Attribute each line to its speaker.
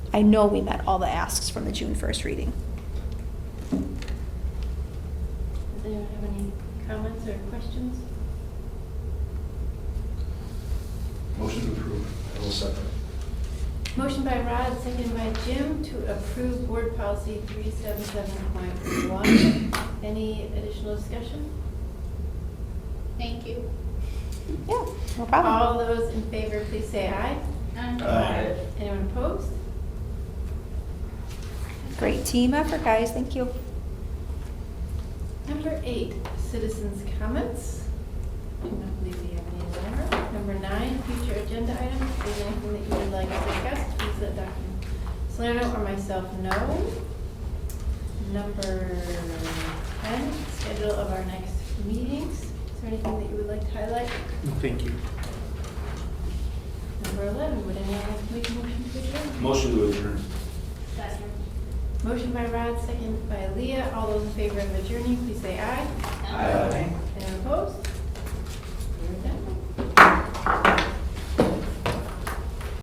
Speaker 1: I know we met all the asks from the June first reading.
Speaker 2: Does anyone have any comments or questions?
Speaker 3: Motion to approve. I will second.
Speaker 2: Motion by Rod, second by Jim, to approve board policy 377.1. Any additional discussion?
Speaker 4: Thank you.
Speaker 1: Yeah, no problem.
Speaker 2: All those in favor, please say aye.
Speaker 3: Aye.
Speaker 2: Anyone opposed?
Speaker 1: Great team effort, guys, thank you.
Speaker 2: Number eight, citizens' comments. I don't believe we have any there. Number nine, future agenda items. If there's anything that you would like to discuss, please let Dr. Salerno or myself know. Number ten, schedule of our next meetings. Is there anything that you would like to highlight?
Speaker 5: No, Thank you.
Speaker 2: Number eleven, would anyone like to make a motion to adjourn?
Speaker 3: Motion to adjourn.
Speaker 4: Second.
Speaker 2: Motion by Rod, second by Leah. All those in favor of adjourning, please say aye.